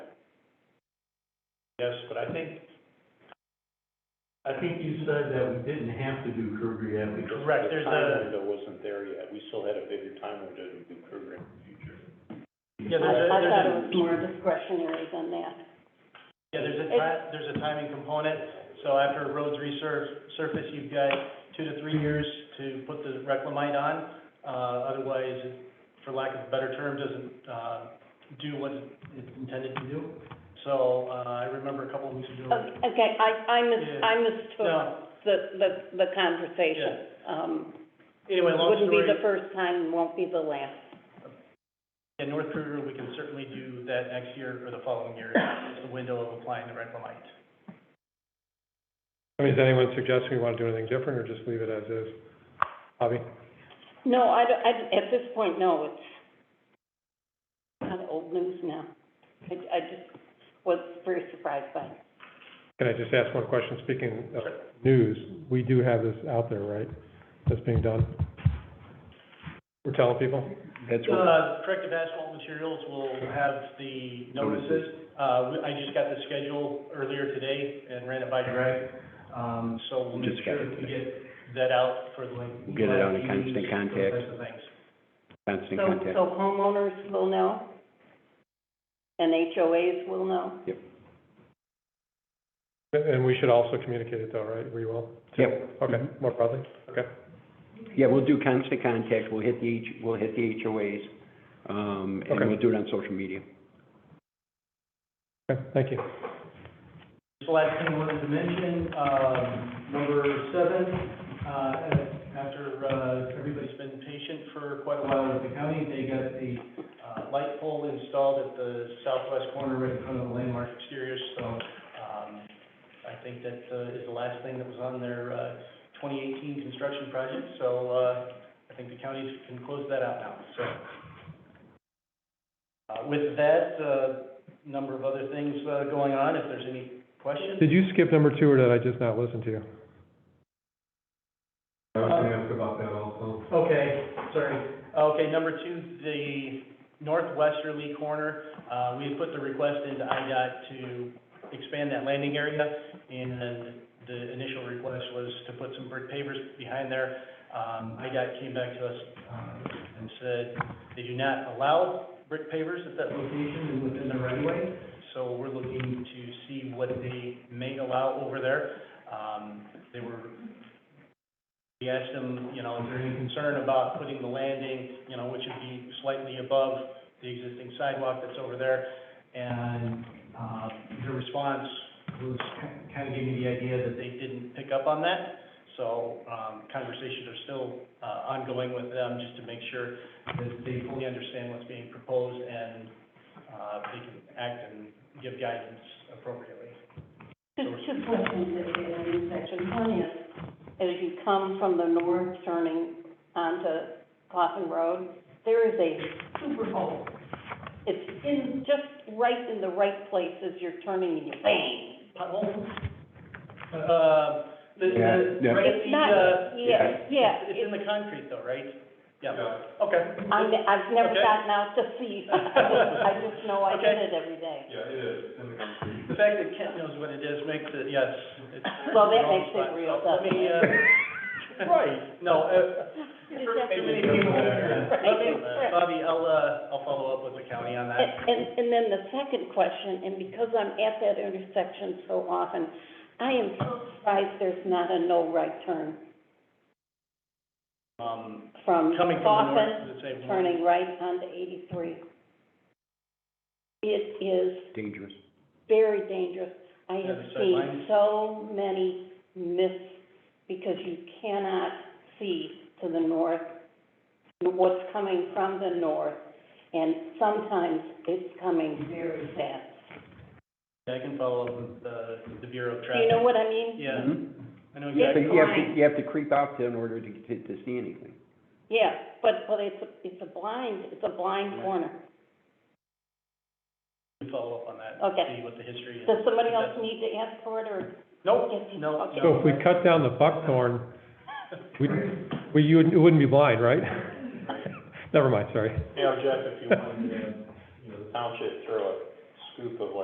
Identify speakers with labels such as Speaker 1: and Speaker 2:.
Speaker 1: Yes, but I think,
Speaker 2: I think you said that we didn't have to do curb rehab because.
Speaker 1: correct, there's a,
Speaker 2: The time window wasn't there yet, we still had a bigger time window to do curb rehab in the future.
Speaker 1: Yeah,
Speaker 3: I,
Speaker 1: there's a-
Speaker 3: I thought it
Speaker 1: there's a-
Speaker 3: was more discretionary than that.
Speaker 1: yeah, there's a ti- there's a timing component. So after roads resurf, surface, you've got two to three years to put the reclamite on. Uh, otherwise, it- for lack of a better term, doesn't, uh, do what it's intended to do. So, uh, I remember a couple of weeks ago.
Speaker 3: O- Oh, Okay, I, I mis,
Speaker 1: Yeah.
Speaker 3: I mistook
Speaker 1: No,
Speaker 3: the, the, the conversation. Um,
Speaker 1: anyway, long
Speaker 3: wouldn't be
Speaker 1: story,
Speaker 3: the first time, won't be the last.
Speaker 1: in North Kruger, we can certainly do that next year or the following year, is the window of applying the reclamite.
Speaker 4: I mean, is anyone suggesting we want to do anything different, or just leave it as is? Bobby?
Speaker 3: No, I, don't- I- at this point, no, it's kind of old news now. I, I just was very surprised by it.
Speaker 4: Can I just ask one question? Speaking of news, we do have this out there, right? That's being done? We're telling people?
Speaker 5: That's what,
Speaker 1: Uh, corrective asphalt materials will have the notices. Uh, we- I just got the schedule earlier today and ran it by Greg. Um, so we'll make
Speaker 5: Just got
Speaker 1: sure
Speaker 5: it
Speaker 1: that we
Speaker 5: today.
Speaker 1: get that out for like.
Speaker 5: We'll get it out in constant
Speaker 1: meetings,
Speaker 5: contact.
Speaker 1: Those types of things.
Speaker 5: constant
Speaker 3: So,
Speaker 5: contact.
Speaker 3: so homeowners will know? And HOAs will know?
Speaker 4: And- And we should also communicate it though, right? We will? too?
Speaker 5: Yep.
Speaker 4: Okay, more broadly? Okay.
Speaker 5: Yeah, we'll do constant contact, we'll hit the, H- we'll hit the HOAs, um, and
Speaker 4: Okay.
Speaker 5: we'll do it on social media.
Speaker 4: Okay, thank you.
Speaker 1: Just the last thing I wanted to mention, um, number seven, uh, after, uh, everybody's been patient for quite a while at the county, they got the, uh, light pole installed at the southwest corner right in front of the landmark exterior, so, um, I think that, uh, is the last thing that was on their, uh, twenty eighteen construction project, so, uh, I think the counties can close that out now, so. Uh, with that, uh, number of other things, uh, going on, if there's any questions.
Speaker 4: Did you skip number two, or did I just not listen to you?
Speaker 2: I was gonna ask about that also.
Speaker 1: Okay, sorry. Okay, number two, the northwesterly corner, uh, we had put the request into IDOT to expand that landing area, and the initial request was to put some brick pavers behind there. Um, IDOT came back to us, uh, and said they do not allow brick pavers at that location and within the right of way, so we're looking to see what they may allow over there. Um, they were we asked them, you know, is there any concern about putting the landing, you know, which would be slightly above the existing sidewalk that's over there? And, uh, their response was kind of gave me the idea that they didn't pick up on that. So, um, conversations are still, uh, ongoing with them just to make sure that they fully understand what's being proposed and, uh, they can act and give guidance appropriately.
Speaker 3: Just two questions that you have in section one is, as you come from the north turning onto Coffin Road, there is a super hole. It's in, just right in the right place as you're turning and you bang.
Speaker 1: Pothole? Uh, the, the,
Speaker 5: Yeah, yeah.
Speaker 1: right at
Speaker 3: It's
Speaker 1: the, uh,
Speaker 3: not, yeah, yeah.
Speaker 1: It's in the concrete though, right? Yeah, okay.
Speaker 3: I, I've never
Speaker 1: Okay.
Speaker 3: gotten out to see, I just know I
Speaker 1: Okay.
Speaker 3: get it every day.
Speaker 2: Yeah, it is, in the concrete.
Speaker 1: The fact that Kent knows what it is makes it, yes. it's-
Speaker 3: Well, that makes it real,
Speaker 1: Let me, uh. Right. No, uh, too many people. Let me, Bobby, I'll, uh, I'll follow up with the county on
Speaker 3: And,
Speaker 1: that.
Speaker 3: and, and then the second question, and because I'm at that intersection so often, I am so surprised there's not a no right turn
Speaker 1: Um,
Speaker 3: from
Speaker 1: coming from the north,
Speaker 3: Coffin,
Speaker 1: to the same.
Speaker 3: turning right onto eighty-three. It is
Speaker 5: Dangerous.
Speaker 3: very dangerous. I
Speaker 1: Yeah,
Speaker 3: have
Speaker 1: the sight
Speaker 3: seen
Speaker 1: lines.
Speaker 3: so many myths because you cannot see to the north what's coming from the north, and sometimes it's coming very fast.
Speaker 1: I can follow up with, uh, the Bureau of
Speaker 3: Do you know
Speaker 1: Traffic.
Speaker 3: what I mean?
Speaker 1: Yeah,
Speaker 5: Mhm.
Speaker 1: I know
Speaker 3: Yeah.
Speaker 5: But
Speaker 1: exactly.
Speaker 5: you have to, you have to creep out there in order to, to, to see anything.
Speaker 3: Yeah, but, but it's, a- it's a blind, it's a blind corner.
Speaker 1: We can Follow up on that.
Speaker 3: Okay.
Speaker 1: See what the history is.
Speaker 3: Does somebody else need to ask for it, or?
Speaker 1: Nope,
Speaker 3: Yes, you-
Speaker 1: no,
Speaker 3: okay.
Speaker 4: So if we cut down the buckthorn, we, we, you wouldn't- it wouldn't be blind, right? Never mind, sorry.
Speaker 2: uh, Yeah, Jeff, if you wanted, to, you know, the township throw a scoop of like